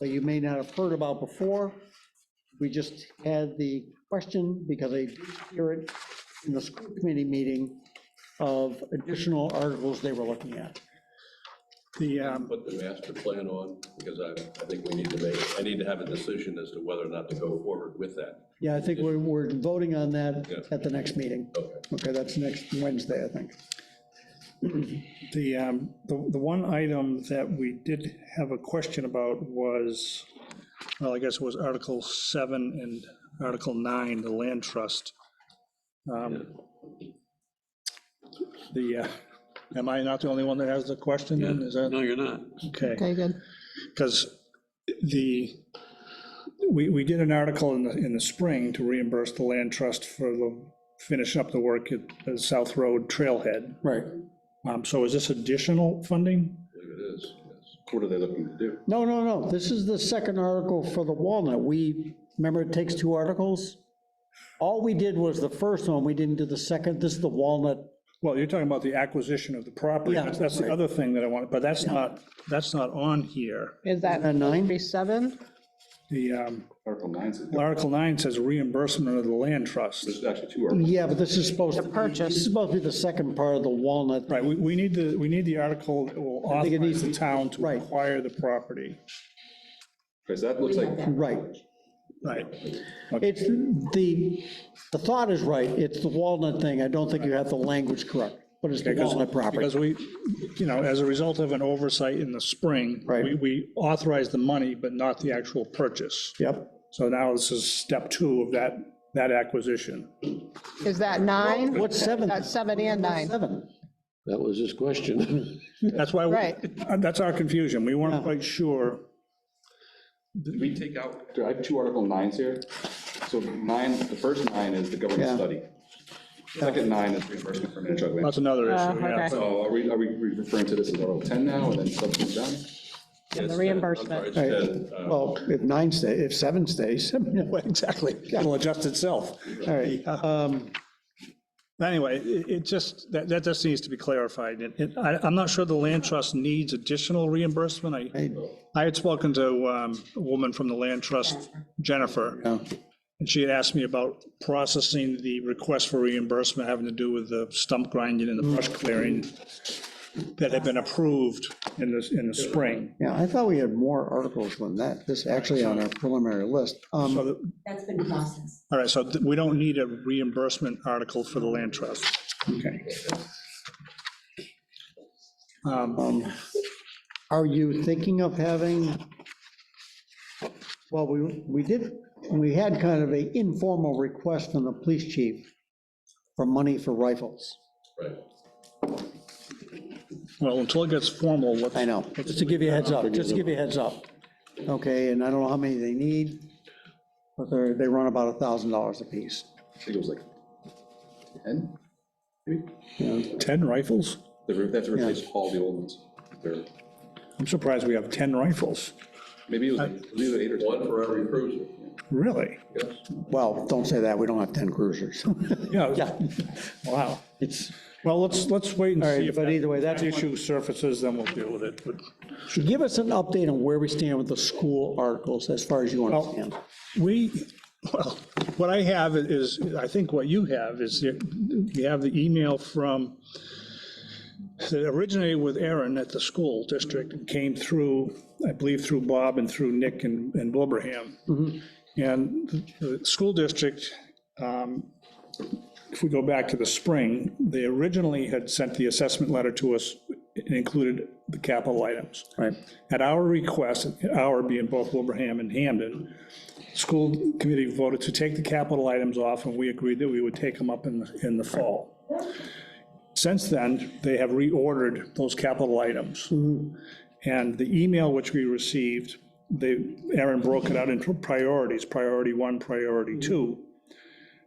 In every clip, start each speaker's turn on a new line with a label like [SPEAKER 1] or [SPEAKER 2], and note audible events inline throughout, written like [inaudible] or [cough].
[SPEAKER 1] that you may not have heard about before. We just had the question, because I did hear it in the school committee meeting, of additional articles they were looking at. The, um,
[SPEAKER 2] put the master plan on, because I, I think we need to make, I need to have a decision as to whether or not to go forward with that.
[SPEAKER 1] yeah, I think we're, we're voting on that
[SPEAKER 2] Yeah.
[SPEAKER 1] at the next meeting.
[SPEAKER 2] Okay.
[SPEAKER 1] Okay, that's next Wednesday, I think.
[SPEAKER 3] The, um, the, the one item that we did have a question about was, well, I guess it was Article 7 and Article 9, the land trust. Um, The, uh, am I not the only one that has the question then? Is that,
[SPEAKER 4] No, you're not.
[SPEAKER 3] okay?
[SPEAKER 5] Okay, good.
[SPEAKER 3] Because the, we, we did an article in the, in the spring to reimburse the land trust for the, finishing up the work at the South Road Trailhead.
[SPEAKER 1] Right.
[SPEAKER 3] Um, So is this additional funding?
[SPEAKER 2] I believe it is, yes.
[SPEAKER 6] What are they looking to do?
[SPEAKER 1] No, no, no, this is the second article for the Walnut. We, remember, it takes two articles? All we did was the first one, we didn't do the second, this is the Walnut.
[SPEAKER 3] Well, you're talking about the acquisition of the property.
[SPEAKER 1] Yeah,
[SPEAKER 3] That's that's the
[SPEAKER 1] right.
[SPEAKER 3] other thing that I want, but that's not, that's not on here.
[SPEAKER 5] Is that
[SPEAKER 1] that nine?
[SPEAKER 5] supposed to be seven?
[SPEAKER 3] The um,
[SPEAKER 6] Article nine says,
[SPEAKER 3] Article 9 says reimbursement of the land trust.
[SPEAKER 6] there's actually two articles.
[SPEAKER 1] Yeah, but this is supposed to. be-
[SPEAKER 5] purchase.
[SPEAKER 1] This is supposed to be the second part of the Walnut.
[SPEAKER 3] Right, we, we need the, we need the article that will
[SPEAKER 1] I think it needs
[SPEAKER 3] authorize the town to
[SPEAKER 1] right.
[SPEAKER 3] acquire the property.
[SPEAKER 6] Because that looks like,
[SPEAKER 1] Right.
[SPEAKER 3] Right.
[SPEAKER 1] It's, the, the thought is right, it's the Walnut thing, I don't think you have the language correct, but it's the
[SPEAKER 3] Because,
[SPEAKER 1] Walnut property.
[SPEAKER 3] because we, you know, as a result of an oversight in the spring,
[SPEAKER 1] Right.
[SPEAKER 3] we, we authorized the money, but not the actual purchase.
[SPEAKER 1] Yep,
[SPEAKER 3] So now this is step two of that, that acquisition.
[SPEAKER 5] Is that nine?
[SPEAKER 1] what's seven?
[SPEAKER 5] That's seven and nine.
[SPEAKER 1] Seven,
[SPEAKER 4] That was his question.
[SPEAKER 3] That's why, we- uh,
[SPEAKER 5] Right. Oh.
[SPEAKER 3] that's our confusion. We weren't quite sure.
[SPEAKER 6] did we take out, do I have two article nines here? So nine, the first nine is the
[SPEAKER 1] Yeah.
[SPEAKER 6] government study. The Second nine is reimbursement for Manchug land.
[SPEAKER 3] That's another
[SPEAKER 5] Uh,
[SPEAKER 3] issue, yeah.
[SPEAKER 5] okay.
[SPEAKER 6] So are we, are we referring to this as article ten now and then subsequent down?
[SPEAKER 2] Yes,
[SPEAKER 5] the
[SPEAKER 2] uh,
[SPEAKER 5] reimbursement.
[SPEAKER 2] I'm sorry, it's, uh,
[SPEAKER 1] well, if nine stays, if seven stays, [laughs] I mean,
[SPEAKER 3] Well, Exactly. It'll adjust itself.
[SPEAKER 1] all right. um,
[SPEAKER 3] Anyway, it, it just, that, that just needs to be clarified. It- it- I, I'm not sure the land trust needs additional reimbursement. I, I had spoken to um, a woman from the land trust, Jennifer,
[SPEAKER 1] Yeah.
[SPEAKER 3] and she had asked me about processing the request for reimbursement having to do with the stump grinding and the brush
[SPEAKER 5] Mm.
[SPEAKER 3] clearing that had been approved in the, in the spring.
[SPEAKER 1] Yeah, I thought we had more articles than that, this actually on our preliminary list. Um,
[SPEAKER 3] So the-
[SPEAKER 7] That's been processed.
[SPEAKER 3] All right, so th- we don't need a reimbursement article for the land trust. Okay. Um,
[SPEAKER 1] um, Are you thinking of having, well, we, we did, we had kind of a informal request from the police chief for money for rifles.
[SPEAKER 2] Right.
[SPEAKER 3] Well, until it gets formal, let's.
[SPEAKER 1] I know, just to give you a heads up, just to give you a heads up. Okay, and I don't know how many they need, but they're, they run about a thousand dollars apiece.
[SPEAKER 6] I think it was like ten?
[SPEAKER 3] Ten rifles?
[SPEAKER 6] They re- they have to replace all the old ones. They're-
[SPEAKER 3] I'm surprised we have ten rifles.
[SPEAKER 6] Maybe it was, it was either eight or
[SPEAKER 2] One
[SPEAKER 6] ten.
[SPEAKER 2] for every cruiser,
[SPEAKER 3] Really?
[SPEAKER 2] yes.
[SPEAKER 1] Well, don't say that, we don't have ten cruisers. [laughs]
[SPEAKER 3] Yeah. Wow.
[SPEAKER 1] It's,
[SPEAKER 3] Well, let's, let's wait and
[SPEAKER 1] All right,
[SPEAKER 3] see if.
[SPEAKER 1] but
[SPEAKER 3] that-
[SPEAKER 1] either way, that's
[SPEAKER 3] that Issue surfaces, then we'll deal with it. But
[SPEAKER 1] give us an update on where we stand with the school articles, as far as you understand.
[SPEAKER 3] We, well, what I have is, I think what you have is, you have the email from, that originated with Aaron at the school district, and came through, I believe, through Bob and through Nick and and Wilbraham. And the the school district, um, if we go back to the spring, they originally had sent the assessment letter to us, it included the capital items.
[SPEAKER 1] Right.
[SPEAKER 3] At our request, our being both Wilbraham and Hamden, school committee voted to take the capital items off, and we agreed that we would take them up in, the- in the fall. Since then, they have reordered those capital items. And the email which we received, they, Aaron broke it out into priorities, priority one, priority two.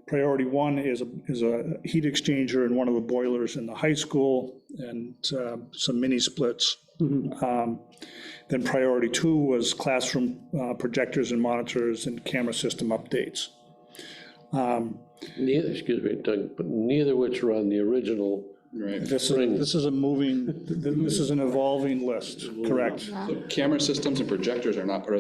[SPEAKER 3] Priority one is, a- is a heat exchanger in one of the boilers in the high school and uh, some mini splits. Then priority two was classroom uh, projectors and monitors and camera system updates.
[SPEAKER 4] Neither, excuse me, Doug, but neither which were on the original
[SPEAKER 6] Right.
[SPEAKER 3] This is, this is a moving, this is an evolving list, correct?
[SPEAKER 6] Camera systems and projectors are not part of